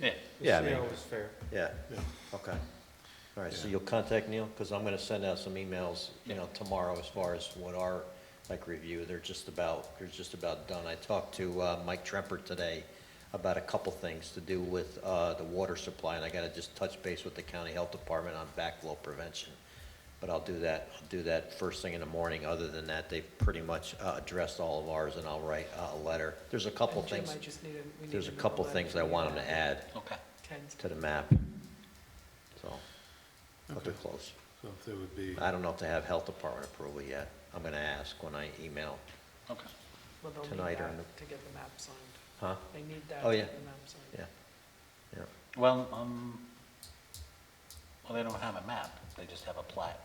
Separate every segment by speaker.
Speaker 1: Yeah.
Speaker 2: Yeah, I
Speaker 3: See
Speaker 2: mean-
Speaker 3: how it's fair.
Speaker 2: Yeah, okay. All right, so you'll contact Neil, because I'm gonna send out some emails, you know, tomorrow as far as what our, like, review, they're just about, they're just about done. I talked to, uh, Mike Tremper today about a couple things to do with, uh, the water supply, and I gotta just touch base with the county health department on backflow prevention. But I'll do that, I'll do that first thing in the morning, other than that, they've pretty much, uh, addressed all of ours, and I'll write uh, a letter. There's a couple
Speaker 4: And Jim,
Speaker 2: things,
Speaker 4: I just need a- we need
Speaker 2: there's a
Speaker 4: another
Speaker 2: couple
Speaker 4: letter
Speaker 2: things
Speaker 4: from
Speaker 2: I
Speaker 4: you.
Speaker 2: want them to add
Speaker 1: Okay.
Speaker 4: Ken's-
Speaker 2: to the map. So, but they're
Speaker 3: Okay.
Speaker 2: close.
Speaker 3: So if there would be,
Speaker 2: I don't know if they have health department approval yet. I'm gonna ask when I email.
Speaker 1: Okay.
Speaker 4: well, they'll need
Speaker 2: tonight or
Speaker 4: that
Speaker 2: in the-
Speaker 4: To get the map signed.
Speaker 2: Huh?
Speaker 4: They need that
Speaker 2: Oh,
Speaker 4: to
Speaker 2: yeah.
Speaker 4: get the map signed.
Speaker 2: Yeah. Yeah.
Speaker 1: Well, um, well, they don't have a map, they just have a plat,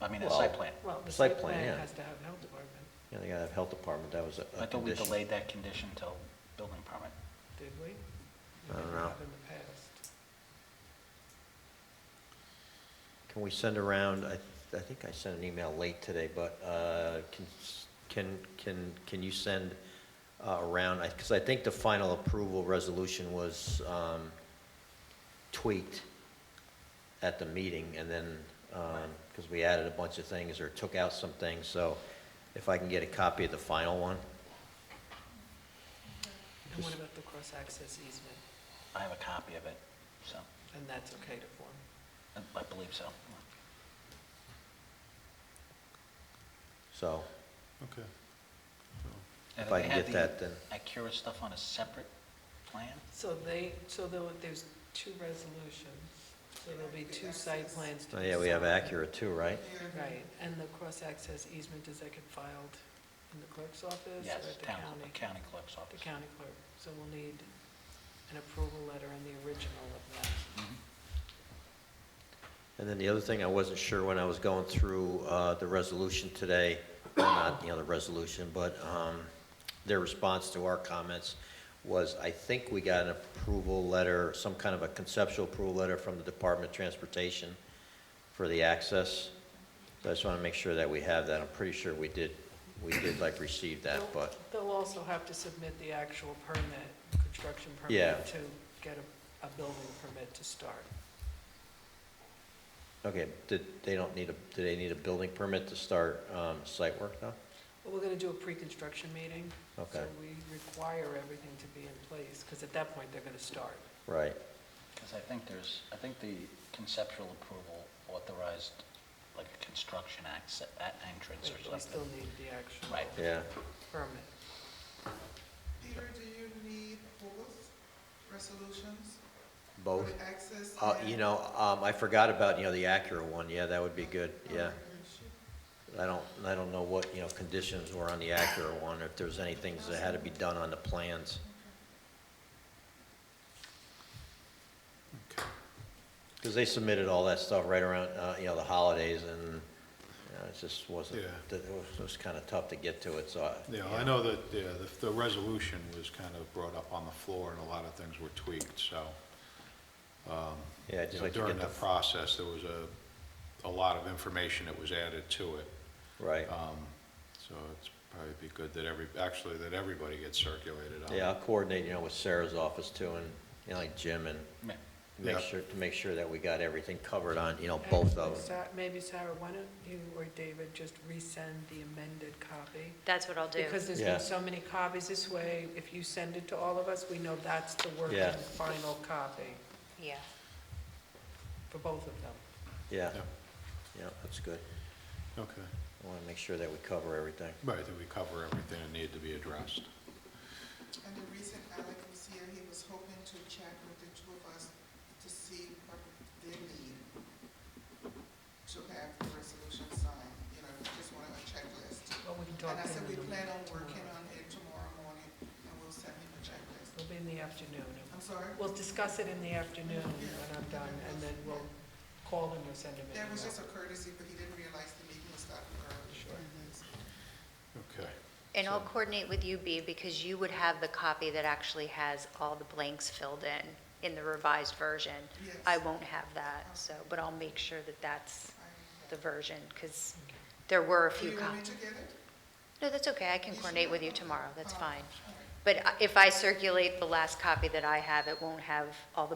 Speaker 1: I mean, a site
Speaker 2: Well-
Speaker 1: plan.
Speaker 4: Well, the
Speaker 2: Site
Speaker 4: site
Speaker 2: plan, yeah.
Speaker 4: plan has to have health department,
Speaker 2: Yeah, they gotta have health department. That was a-
Speaker 1: I
Speaker 2: a
Speaker 1: thought we
Speaker 2: condition.
Speaker 1: delayed that condition till building permit.
Speaker 4: did we? We
Speaker 2: I don't
Speaker 4: didn't
Speaker 2: know.
Speaker 4: have In the past.
Speaker 2: Can we send around, I, I think I sent an email late today, but, uh, can, can, can, can you send uh, around, I, cause I think the final approval resolution was, um, tweaked at the meeting and then, um, cause we added a bunch of things or took out some things, so if I can get a copy of the final one,
Speaker 4: And what
Speaker 2: Just-
Speaker 4: about the cross-access easement?
Speaker 1: I have a copy of it, so,
Speaker 4: And that's okay to form?
Speaker 1: I I believe so.
Speaker 2: so
Speaker 3: okay.
Speaker 1: And
Speaker 2: if I
Speaker 1: they
Speaker 2: can
Speaker 1: had
Speaker 2: get that,
Speaker 1: the
Speaker 2: then,
Speaker 1: Acura stuff on a separate plan?
Speaker 4: So they, so there, were- there's two resolutions, so there'll be two site plans to
Speaker 2: oh
Speaker 4: be
Speaker 2: yeah, we have
Speaker 4: signed.
Speaker 2: Acura too, right?
Speaker 4: Right, and the cross-access easement, does that get filed in the clerk's office
Speaker 1: Yes,
Speaker 4: or at the
Speaker 1: town,
Speaker 4: county?
Speaker 1: county clerk's
Speaker 4: The
Speaker 1: office.
Speaker 4: county clerk, so we'll need an approval letter and the original of that.
Speaker 1: Mhm.
Speaker 2: And then the other thing, I wasn't sure when I was going through uh, the resolution today, or not, you know, the resolution, but um, their response to our comments was, I think we got an approval letter, some kind of a conceptual approval letter from the Department of Transportation for the access. So I just want to make sure that we have that. I'm pretty sure we did, we did like receive that, but,
Speaker 4: They'll also have to submit the actual permit, construction
Speaker 2: Yeah.
Speaker 4: permit, to get a, a building permit to start.
Speaker 2: okay, did, they don't need a, do they need a building permit to start um, site work though?
Speaker 4: But we're gonna do a pre-construction meeting. So
Speaker 2: Okay,
Speaker 4: we require everything to be in place, because at that point, they're gonna start.
Speaker 2: right,
Speaker 1: Because I think there's, I think the conceptual approval authorized like a construction access, entrance
Speaker 4: But
Speaker 1: or something.
Speaker 4: we still need the actual
Speaker 1: Right.
Speaker 2: yeah.
Speaker 4: permit.
Speaker 5: Peter, do you need both resolutions? for
Speaker 2: Both?
Speaker 5: the Access?
Speaker 2: Uh,
Speaker 5: and-
Speaker 2: you know, um, I forgot about, you know, the Acura one, yeah, that would be good,
Speaker 5: Oh,
Speaker 2: yeah.
Speaker 5: you should.
Speaker 2: I don't, I don't know what, you know, conditions were on the Acura one, if there's any things that had to be done on the plans.
Speaker 3: Okay.
Speaker 2: Because they submitted all that stuff right around, uh, you know, the holidays, and, you know, it just wasn't,
Speaker 3: Yeah.
Speaker 2: it was, it was kind of tough to get to it, so. I-
Speaker 3: Yeah, I know that, yeah, the, the resolution was kind of brought up on the floor and a lot of things were tweaked, so.
Speaker 2: Yeah, I'd
Speaker 3: you
Speaker 2: just
Speaker 3: know,
Speaker 2: like to
Speaker 3: During
Speaker 2: get the,
Speaker 3: that process, there was a, a lot of information that was added to it.
Speaker 2: right.
Speaker 3: Um, So it's probably be good that every, actually, that everybody gets circulated on.
Speaker 2: Yeah, I'll coordinate, you know, with Sarah's office too, and, you know, like Jim, and
Speaker 1: Yeah.
Speaker 2: make
Speaker 3: Yeah.
Speaker 2: sure, to make sure that we got everything covered on, you know, both of them.
Speaker 4: Sa- Maybe Sarah, why don't you or David just resend the amended copy?
Speaker 6: That's what I'll do.
Speaker 4: Because there's
Speaker 2: Yeah.
Speaker 4: been so many copies this way, if you send it to all of us, we know that's the working
Speaker 2: Yeah.
Speaker 4: final copy
Speaker 6: Yeah.
Speaker 4: for both of them.
Speaker 2: Yeah,
Speaker 3: Yeah,
Speaker 2: yeah, that's good.
Speaker 3: Okay,
Speaker 2: I want to make sure that we cover everything.
Speaker 3: right, that we cover everything that needed to be addressed.
Speaker 5: And the reason Alec was here, he was hoping to chat with the two of us to see what they need to have the resolution signed, you know, we just wanted a checklist.
Speaker 4: Well, we can talk
Speaker 5: And I
Speaker 4: then
Speaker 5: said,
Speaker 4: in
Speaker 5: we
Speaker 4: the-
Speaker 5: plan on
Speaker 4: tomorrow.
Speaker 5: working on it tomorrow morning, and we'll send him a checklist.
Speaker 4: It'll be in the afternoon.
Speaker 5: I'm sorry?
Speaker 4: We'll discuss it in the afternoon when I'm done, and then we'll call him or send him an
Speaker 5: That was
Speaker 4: email.
Speaker 5: just a courtesy, but he didn't realize the meeting was starting early.
Speaker 4: Sure.
Speaker 3: Okay,
Speaker 6: And I'll
Speaker 3: So-
Speaker 6: coordinate with you, B, because you would have the copy that actually has all the blanks filled in, in the revised version.
Speaker 5: Yes.
Speaker 6: I won't have that, so, but I'll make sure that that's
Speaker 5: I-
Speaker 6: the version, because there were a
Speaker 5: Do
Speaker 6: few
Speaker 5: you want me
Speaker 6: copies.
Speaker 5: to get it?
Speaker 6: No, that's okay, I can
Speaker 5: You
Speaker 6: coordinate
Speaker 5: sure?
Speaker 6: with you tomorrow, that's
Speaker 5: Oh,
Speaker 6: fine. uh,
Speaker 5: all right.
Speaker 6: But I- if I circulate the last copy that I have, it won't have all the